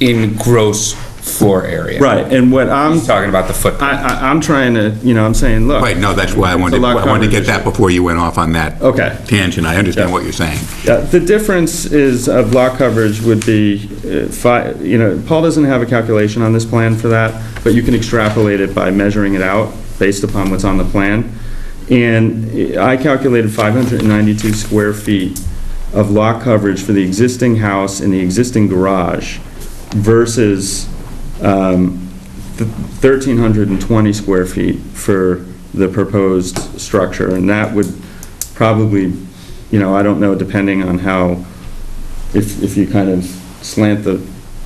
in gross floor area. Right, and what I'm, He's talking about the I, footprint. I, I'm trying to, you know, I'm saying, look. Right, no, that's why I wanted, It's a lot I wanted to coverage. get that before you went off on that. Okay. Tangent, I understand what you're saying. Yeah, The difference is, of lot coverage would be, uh, fi- you know, Paul doesn't have a calculation on this plan for that, but you can extrapolate it by measuring it out based upon what's on the plan. And I calculated 592 square feet of lot coverage for the existing house and the existing garage versus um, th- 1,320 square feet for the proposed structure. And that would probably, you know, I don't know, depending on how, if, if you kind of slant the,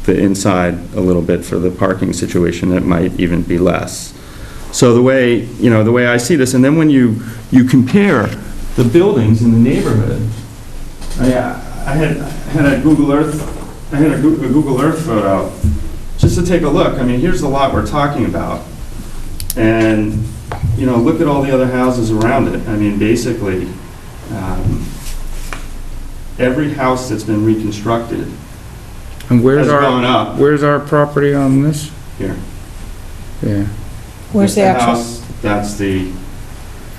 the inside a little bit for the parking situation, it might even be less. So the way, you know, the way I see this, and then when you, you compare the buildings in the neighborhood, I, I had, I had a Google Earth, I had a Goo- a Google Earth photo, just to take a look, I mean, here's the lot we're talking about. And, you know, look at all the other houses around it. I mean, basically, um, every house that's been reconstructed And has where's gone our, up where's our property on this? here. Yeah. Where's the That's actual? house, That's the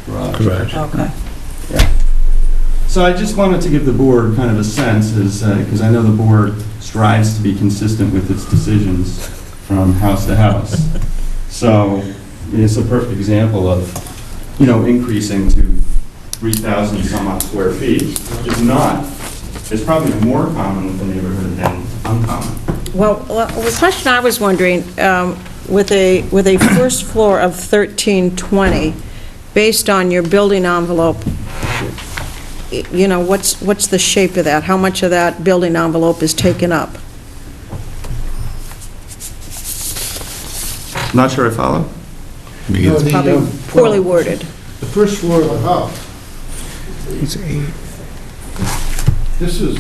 garage. Correct. Okay. So I just wanted to give the board kind of a sense, is, because I know the board strives to be consistent with its decisions from house to house. So it's a perfect example of, you know, increasing to 3,000 some odd square feet is not, is probably more common with the neighborhood than uncommon. Well, well, the question I was wondering, um, with a, with a first floor of 1320, based on your building envelope, y- you know, what's, what's the shape of that? How much of that building envelope is taken up? Not sure I follow? Because- The, Probably um, poorly worded. The first floor of the house, It's eight. this is,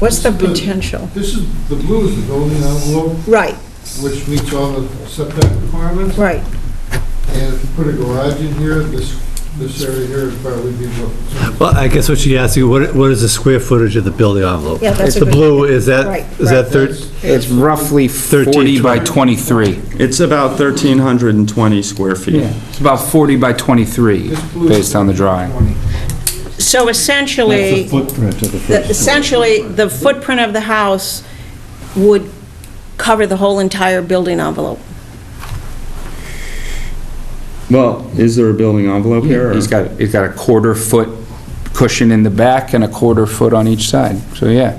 What's the This is the- potential? this is, the blue is the building envelope, Right, which meets all the setback requirements. right. And if you put a garage in here, this, this area here would probably be what. Well, I guess what she asked you, what, what is the square footage of the building envelope? Yeah, that's a The good- blue, is Right, that, is that thir- That's- It's roughly 40 13, by 23. It's about 1,320 square feet. It's about 40 by 23, this blue is based on the drawing. 20. So essentially, footprint of the the- essentially, the footprint of the house would cover the whole entire building envelope. Well, is there a building envelope here? or- He's got, he's got a quarter foot cushion in the back and a quarter foot on each side, so yeah.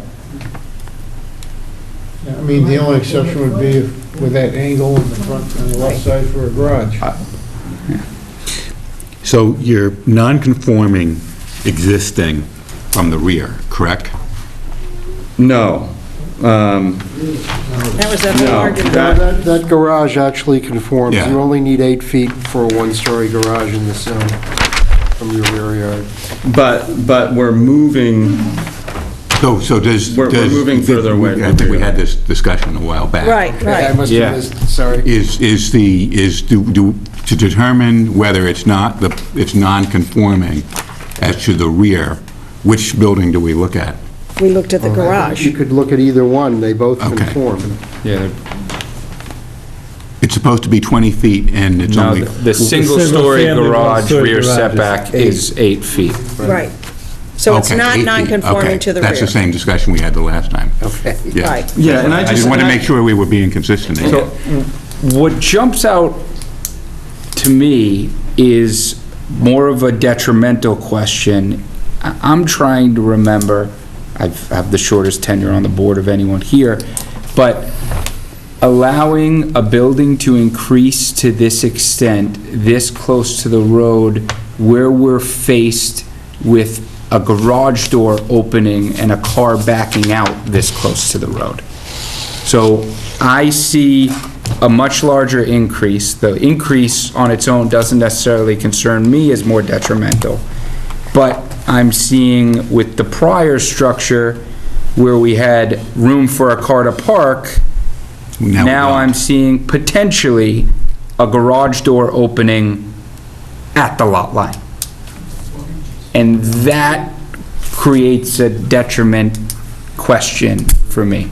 I mean, the only exception would be if- with that angle in the front, on the left side for a garage. So you're non-conforming existing from the rear, correct? No. Um, That was the whole No, argument. that- That that garage actually conforms. Yeah. You only need eight feet for a one-story garage in this zone from your rear yard. But, but we're moving, So, so does... We're- we're does- moving further away I think we had this discussion a while back. Right, I right. must Yeah. have missed, sorry. Is, is the, is, do, do to determine whether it's not, the it's non-conforming as to the rear, which building do we look at? We looked at the garage. You could look at either one, they both Okay. conform. Yeah. It's supposed to be 20 feet, and it's No, only... the the single-story single-family, garage one-story rear garage is setback eight. is eight feet. Right. So it's Okay, eight not feet. non-conforming Okay, to the rear. That's the same discussion we had the last time. Okay. Right. yeah, and I I just... just wanted to make sure we were being consistent. again. So, what jumps out to me is more of a detrimental question. I- I'm trying to remember, I've, I have the shortest tenure on the board of anyone here, but allowing a building to increase to this extent, this close to the road, where we're faced with a garage door opening and a car backing out this close to the road. So I see a much larger increase. The increase on its own doesn't necessarily concern me as more detrimental. But I'm seeing with the prior structure where we had room for a car to park, Now we now don't. I'm seeing potentially a garage door opening at the lot line. And that creates a detriment question for me.